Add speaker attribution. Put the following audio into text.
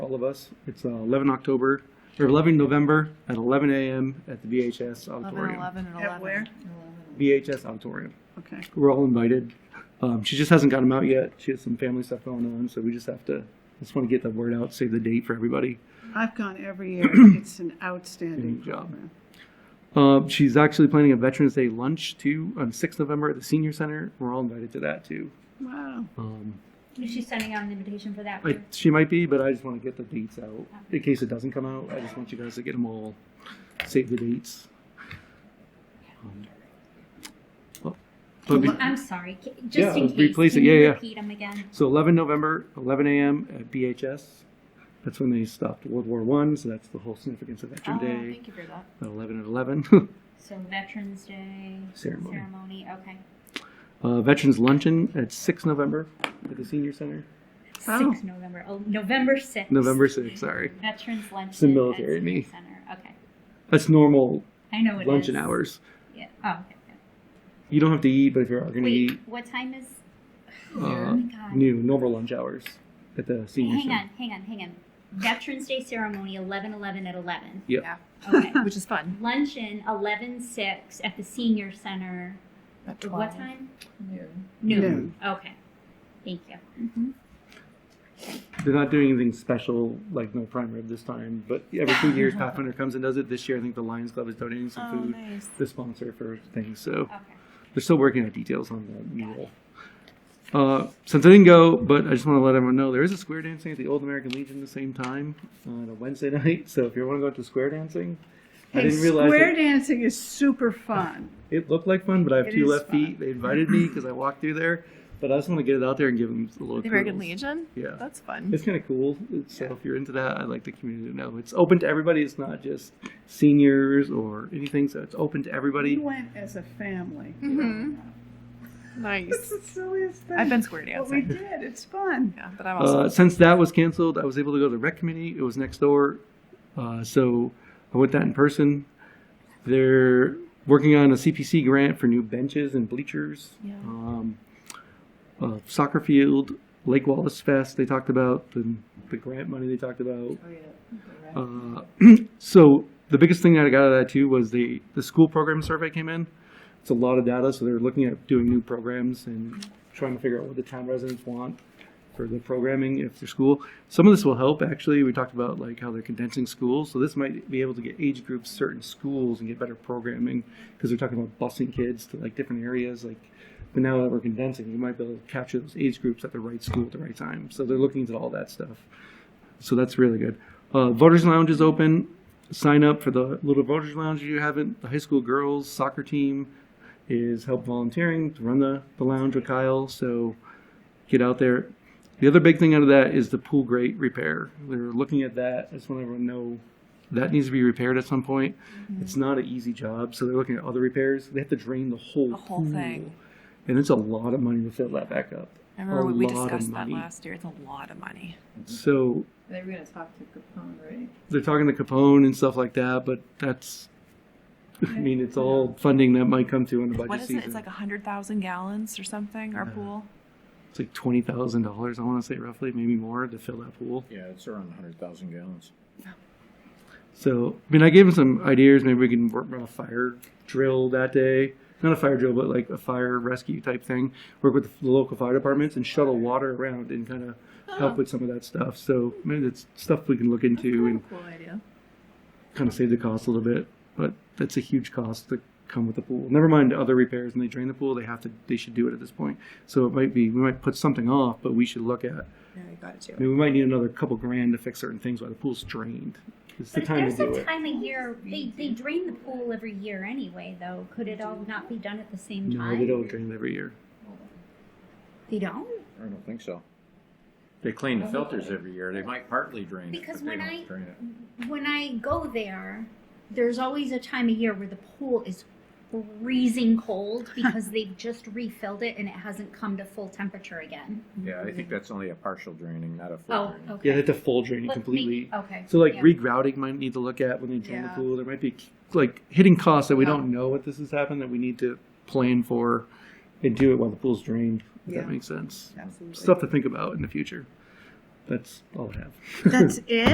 Speaker 1: all of us. It's uh, 11 October, or 11 November at 11 a.m. at the VHS
Speaker 2: Eleven,
Speaker 1: auditorium.
Speaker 2: eleven, and eleven.
Speaker 3: At where?
Speaker 1: VHS auditorium.
Speaker 3: Okay.
Speaker 1: We're all invited. Um, She just hasn't got them out yet. She has some family stuff going on, so we just have to, just want to get the word out, save the date for everybody.
Speaker 3: I've gone every year. It's an outstanding
Speaker 1: Good job.
Speaker 3: program.
Speaker 1: Uh, she's actually planning a Veterans Day lunch too on 6th November at the Senior Center. We're all invited to that too.
Speaker 3: Wow.
Speaker 1: Um,
Speaker 4: Is she sending out an invitation for that?
Speaker 1: I,
Speaker 4: too?
Speaker 1: she might be, but I just want to get the dates out in case it doesn't come out. I just want you guys to get them all, save the dates. Um, well, but be-
Speaker 4: I'm sorry. ca- Just
Speaker 1: Yeah,
Speaker 4: in
Speaker 1: let's
Speaker 4: case.
Speaker 1: replace it.
Speaker 4: Can
Speaker 1: Yeah,
Speaker 4: you
Speaker 1: yeah.
Speaker 4: repeat them again?
Speaker 1: so 11 November, 11 a.m. at BHS. That's when they stopped World War One, so that's the whole significance of
Speaker 2: Oh,
Speaker 1: Veteran Day.
Speaker 2: thank you for that.
Speaker 1: At 11 and 11.
Speaker 4: So Veterans Day
Speaker 1: Ceremony.
Speaker 4: ceremony, Okay.
Speaker 1: uh, Veterans Luncheon at 6 November at the Senior Center.
Speaker 3: Oh.
Speaker 4: Six November. Oh, November sixth.
Speaker 1: November 6th, sorry.
Speaker 4: Veterans luncheon.
Speaker 1: the
Speaker 4: at
Speaker 1: military in me.
Speaker 4: Civic Center. Okay.
Speaker 1: That's normal
Speaker 4: I know it is.
Speaker 1: luncheon hours.
Speaker 4: Yeah. Oh. Okay. good.
Speaker 1: You don't have to eat, but if you're going to
Speaker 4: Wait.
Speaker 1: eat,
Speaker 4: What time is?
Speaker 1: uh,
Speaker 4: oh my God.
Speaker 1: new normal lunch hours at the senior
Speaker 4: Hang
Speaker 1: center.
Speaker 4: on. Hang on. Hang on. Veterans Day ceremony, 11 11 at 11.
Speaker 1: Yep.
Speaker 2: Yeah.
Speaker 4: Okay.
Speaker 2: Which is fun.
Speaker 4: Luncheon, 11 6 at the senior center.
Speaker 2: At
Speaker 4: What time?
Speaker 2: Noon.
Speaker 4: Noon.
Speaker 1: Um,
Speaker 3: Noon.
Speaker 4: Okay. Thank you.
Speaker 1: They're not doing anything special, like no prime rib this time, but every two years Pathfinder comes and does it. This year, I think the Lions Club is donating some
Speaker 2: Oh,
Speaker 1: food,
Speaker 2: nice.
Speaker 1: the sponsor for things. So
Speaker 4: Okay.
Speaker 1: they're still working out details on the meal. Uh, since I didn't go, but I just want to let everyone know there is a square dancing at the Old American Legion at the same time on a Wednesday night. So if you want to go to square dancing, I
Speaker 3: Hey,
Speaker 1: didn't realize it-
Speaker 3: square dancing is super fun.
Speaker 1: It looked like fun, but I have
Speaker 3: It
Speaker 1: two
Speaker 3: is
Speaker 1: left
Speaker 3: fun.
Speaker 1: feet. They invited me because I walked through there, but I just want to get it out there and give them a little.
Speaker 2: The American
Speaker 1: kudos.
Speaker 2: Legion?
Speaker 1: Yeah.
Speaker 2: That's fun.
Speaker 1: It's kind of cool. It's, So if you're into that, I'd like the community to know it's open to everybody. It's not just seniors or anything. So it's open to
Speaker 3: We
Speaker 1: everybody.
Speaker 3: went as a family.
Speaker 2: hmm
Speaker 3: It's
Speaker 2: Nice.
Speaker 3: the silliest thing.
Speaker 2: I've been square
Speaker 3: But we
Speaker 2: dancing.
Speaker 3: did. It's fun.
Speaker 2: Yeah, but I'm also.
Speaker 1: Uh, since that was canceled, I was able to go to the rec committee. It was next door, uh, so I went that in person. They're working on a CPC grant for new benches and bleachers.
Speaker 2: Yeah.
Speaker 1: Um, uh, soccer field, Lake Wallace Fest. They talked about the, the grant money. They talked
Speaker 2: Oh,
Speaker 1: about. Uh, so the biggest thing that I got out of that too was the the school program survey came in. It's a lot of data, so they're looking at doing new programs and trying to figure out what the town residents want for the programming if they're school. Some of this will help actually. We talked about like how they're condensing schools, so this might be able to get age groups certain schools and get better programming because they're talking about busing kids to like different areas like. But now that we're condensing, you might be able to capture those age groups at the right school at the right time. So they're looking into all that stuff. So that's really good. Uh, Voters Lounge is open. Sign up for the Little Voters Lounge if you haven't. The high school girls soccer team is help volunteering to run the, the lounge with Kyle. So get out there. The other big thing out of that is the pool grate repair. They're looking at that. I just want everyone to know that needs to be repaired at some point.
Speaker 2: Mm-hmm.
Speaker 1: It's not an easy job, so they're looking at other repairs. They have to drain the whole
Speaker 2: The whole
Speaker 1: pool.
Speaker 2: thing.
Speaker 1: and it's a lot of money to fill that back up.
Speaker 2: I remember
Speaker 1: a
Speaker 2: when we
Speaker 1: lot of
Speaker 2: discussed that
Speaker 1: money.
Speaker 2: last year. It's a lot of money.
Speaker 1: So
Speaker 5: They were gonna talk to Capone, right?
Speaker 1: they're talking to Capone and stuff like that, but that's, I mean, it's all funding that might come to in the budget
Speaker 2: What is
Speaker 1: season.
Speaker 2: it? It's like 100,000 gallons or something, our
Speaker 1: Yeah.
Speaker 2: pool.
Speaker 1: It's like twenty thousand dollars, I want to say roughly, maybe more, to fill that pool.
Speaker 6: Yeah, it's around 100,000 gallons.
Speaker 1: So, I mean, I gave him some ideas. Maybe we can work on a fire drill that day. Not a fire drill, but like a fire rescue type thing. Work with the local fire departments and shuttle water around and kind of
Speaker 2: Ah.
Speaker 1: help with some of that stuff. So, I mean, it's stuff we can look into and
Speaker 5: Cool idea.
Speaker 1: kind of save the cost a little bit, but that's a huge cost to come with the pool. Never mind other repairs when they drain the pool, they have to they should do it at this point. So it might be we might put something off, but we should look at
Speaker 2: Yeah, you got it too.
Speaker 1: I mean we might need another couple grand to fix certain things while the pool's drained. It's the
Speaker 4: But
Speaker 1: time to
Speaker 4: there's
Speaker 1: do
Speaker 4: a
Speaker 1: it.
Speaker 4: time of year, they, they drain the pool every year anyway, though. Could it all not be done at the same
Speaker 1: No, they
Speaker 4: time?
Speaker 1: don't drain it every year.
Speaker 4: They don't?
Speaker 6: I don't think so. They clean the filters every year. They might partly drain it,
Speaker 4: Because
Speaker 6: but
Speaker 4: when
Speaker 6: they don't
Speaker 4: I-
Speaker 6: drain it.
Speaker 4: When I go there, there's always a time of year where the pool is freezing cold because they've just refilled it and it hasn't come to full temperature again.
Speaker 6: Yeah, I think that's only a partial draining, not a full
Speaker 4: Oh,
Speaker 6: draining.
Speaker 4: okay.
Speaker 1: Yeah, they have to full drain it
Speaker 4: Let me-
Speaker 1: completely.
Speaker 4: Okay.
Speaker 1: So like
Speaker 4: yeah.
Speaker 1: regrouting might need to look at when they drain the
Speaker 3: Yeah.
Speaker 1: pool. There might be like hitting costs that we don't know what this has happened that we need to plan for and do it while the pool's drained. If
Speaker 3: Yeah.
Speaker 1: that makes sense.
Speaker 3: Absolutely.
Speaker 1: Stuff to think about in the future.
Speaker 7: That's all I have.
Speaker 1: That's it?